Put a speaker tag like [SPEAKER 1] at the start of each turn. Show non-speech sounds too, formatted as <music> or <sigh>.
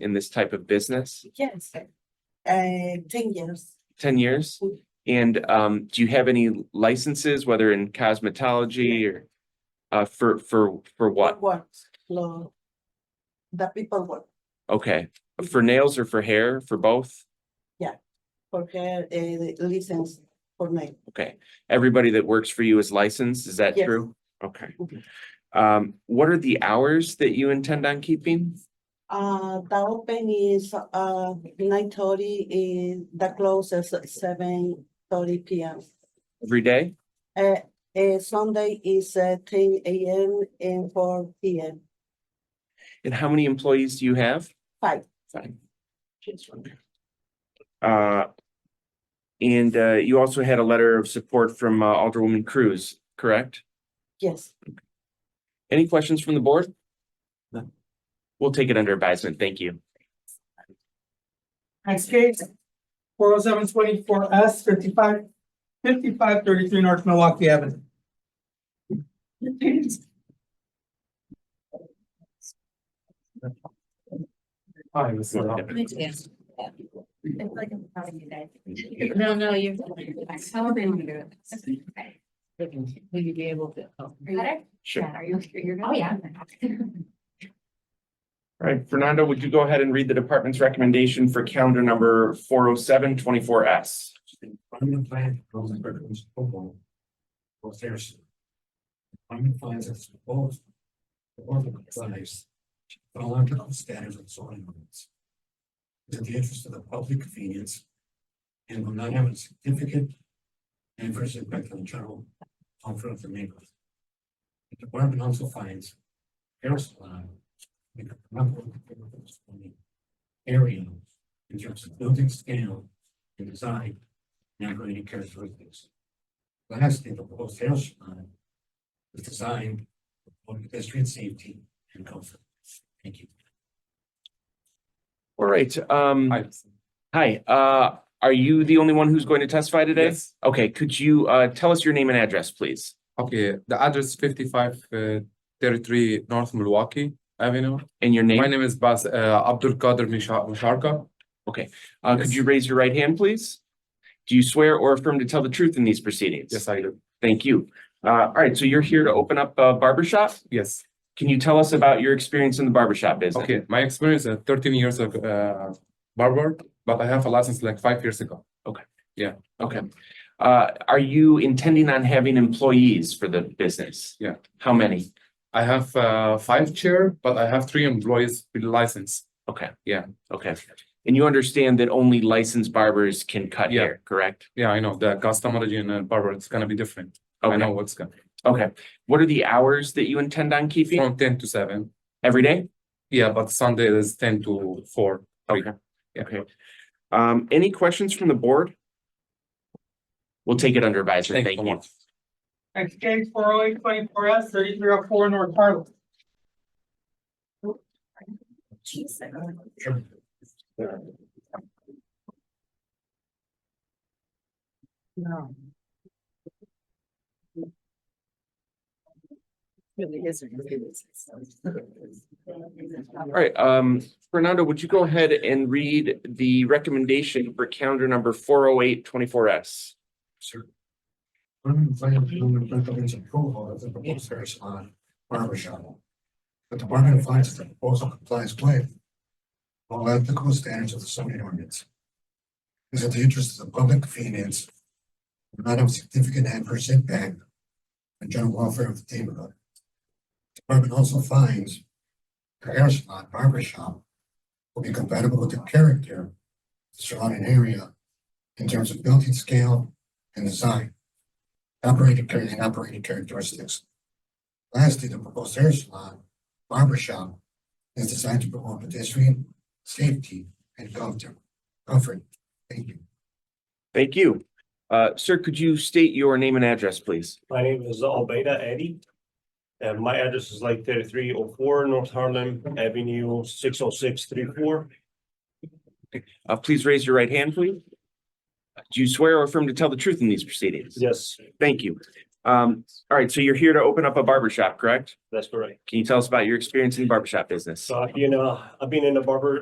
[SPEAKER 1] in this type of business?
[SPEAKER 2] Yes, uh, ten years.
[SPEAKER 1] Ten years? And um, do you have any licenses, whether in cosmetology or uh, for, for, for what?
[SPEAKER 2] Works, lo, the people work
[SPEAKER 1] Okay, for nails or for hair, for both?
[SPEAKER 2] for her, uh, license for me.
[SPEAKER 1] Okay, everybody that works for you is licensed, is that
[SPEAKER 2] Yes.
[SPEAKER 1] true? Okay.
[SPEAKER 2] Mhm.
[SPEAKER 1] Um, what are the hours that you intend on keeping?
[SPEAKER 2] Uh, the open is, uh, nine thirty, is the close is seven thirty P M.
[SPEAKER 1] Every day?
[SPEAKER 2] Uh, uh, Sunday is, uh, ten A M and four P M.
[SPEAKER 1] And how many employees do you have?
[SPEAKER 2] Five.
[SPEAKER 1] Five. Uh, and uh, you also had a letter of support from uh, Alderwoman Cruz, correct?
[SPEAKER 2] Yes,
[SPEAKER 1] Any questions from the board? No. We'll take it under advisement. Thank you.
[SPEAKER 3] Next case, four oh seven twenty-four S fifty-five, fifty-five thirty-three North Milwaukee Avenue.
[SPEAKER 4] Hi, Ms. Lerner.
[SPEAKER 5] It's like I'm telling you guys. No, no, you're. How are you?
[SPEAKER 6] Will you be able to? oh,
[SPEAKER 5] Better?
[SPEAKER 1] Sure.
[SPEAKER 5] Are you, you're, oh, yeah. <laughs>
[SPEAKER 1] All right, Fernando, would you go ahead and read the department's recommendation for calendar number four oh seven twenty-four S?
[SPEAKER 4] Employment plan, goals and purpose, football. For sales. Employment plans as proposed. The board applies. The long-term status of zoning ordinance. Is in the interest of the public convenience. And will not have a significant. Adverse impact on general comfort of the neighborhood. The department also finds. Hair salon. with a number of different Area. In terms of building scale. And design number any characteristics. Lastly, the proposed hair salon is designed for pedestrian safety and comfort. Thank you.
[SPEAKER 1] All right, um,
[SPEAKER 7] Hi.
[SPEAKER 1] hi, uh, are you the only one who's going to testify today?
[SPEAKER 7] Yes.
[SPEAKER 1] Okay, could you uh tell us your name and address, please?
[SPEAKER 7] Okay, the address fifty-five uh, thirty-three North Milwaukee Avenue.
[SPEAKER 1] And your
[SPEAKER 7] My
[SPEAKER 1] name?
[SPEAKER 7] name is Bas uh, Abdul Qadir Misha- Misharka.
[SPEAKER 1] Uh, could
[SPEAKER 7] Yes.
[SPEAKER 1] you raise your right hand, please? Do you swear or affirm to tell the truth in these proceedings?
[SPEAKER 7] Yes, I do.
[SPEAKER 1] Thank you. Uh, all right, so you're here to open up a barber shop.
[SPEAKER 7] Yes.
[SPEAKER 1] Can you tell us about your experience in the barber shop business?
[SPEAKER 7] Okay, my experience is thirteen years of uh, barber, but I have a license like five years ago.
[SPEAKER 1] Okay. Uh, are you intending on having employees for the business?
[SPEAKER 7] Yeah.
[SPEAKER 1] How many?
[SPEAKER 7] I have uh, five chair, but I have three employees with license.
[SPEAKER 1] Okay.
[SPEAKER 7] Yeah.
[SPEAKER 1] Okay. And you understand that only licensed barbers can cut
[SPEAKER 7] Yeah.
[SPEAKER 1] hair, correct?
[SPEAKER 7] Yeah, I know the cosmetology and uh, barber, it's gonna be different. I know
[SPEAKER 1] Okay,
[SPEAKER 7] what's gonna,
[SPEAKER 1] okay. What are the hours that you intend on keeping?
[SPEAKER 7] from ten to seven.
[SPEAKER 1] Every day?
[SPEAKER 7] Yeah, but Sunday is ten to four. three.
[SPEAKER 1] Okay.
[SPEAKER 7] Yeah.
[SPEAKER 1] Okay. Um, any questions from the board? We'll take it under advisement.
[SPEAKER 7] Thank you
[SPEAKER 1] Thank
[SPEAKER 7] so
[SPEAKER 1] you.
[SPEAKER 7] much.
[SPEAKER 3] Next case, four oh eight twenty-four S thirty-three oh four North Harlem.
[SPEAKER 6] No. Really isn't.
[SPEAKER 1] All right, um, Fernando, would you go ahead and read the recommendation for calendar number four oh eight twenty-four S?
[SPEAKER 4] Sir. Department plan improvement recommends approval of the proposed hair salon barber shop. The department finds that the proposal complies with. All ethical standards of the zoning ordinance. Is in the interest of the public convenience. will Not have significant adverse impact. On general welfare of the neighborhood. Department also finds. The hair salon barber shop. Will be compatible with the character. of the Surrounding area. In terms of building scale and design. Operating character and operating characteristics. Lastly, the proposed hair salon, barber shop is designed to promote pedestrian safety and comfort. Comfort, thank you.
[SPEAKER 1] Thank you. Uh, sir, could you state your name and address, please?
[SPEAKER 8] My name is Albeida Eddie. And my address is like thirty-three oh four North Harlem Avenue, six oh six three four.
[SPEAKER 1] Uh, please raise your right hand, please. Do you swear or affirm to tell the truth in these proceedings?
[SPEAKER 8] Yes,
[SPEAKER 1] Thank you. Um, all right, so you're here to open up a barber shop, correct?
[SPEAKER 8] that's correct.
[SPEAKER 1] Can you tell us about your experience in the barber shop business?
[SPEAKER 8] So I've been, uh, I've been in the barber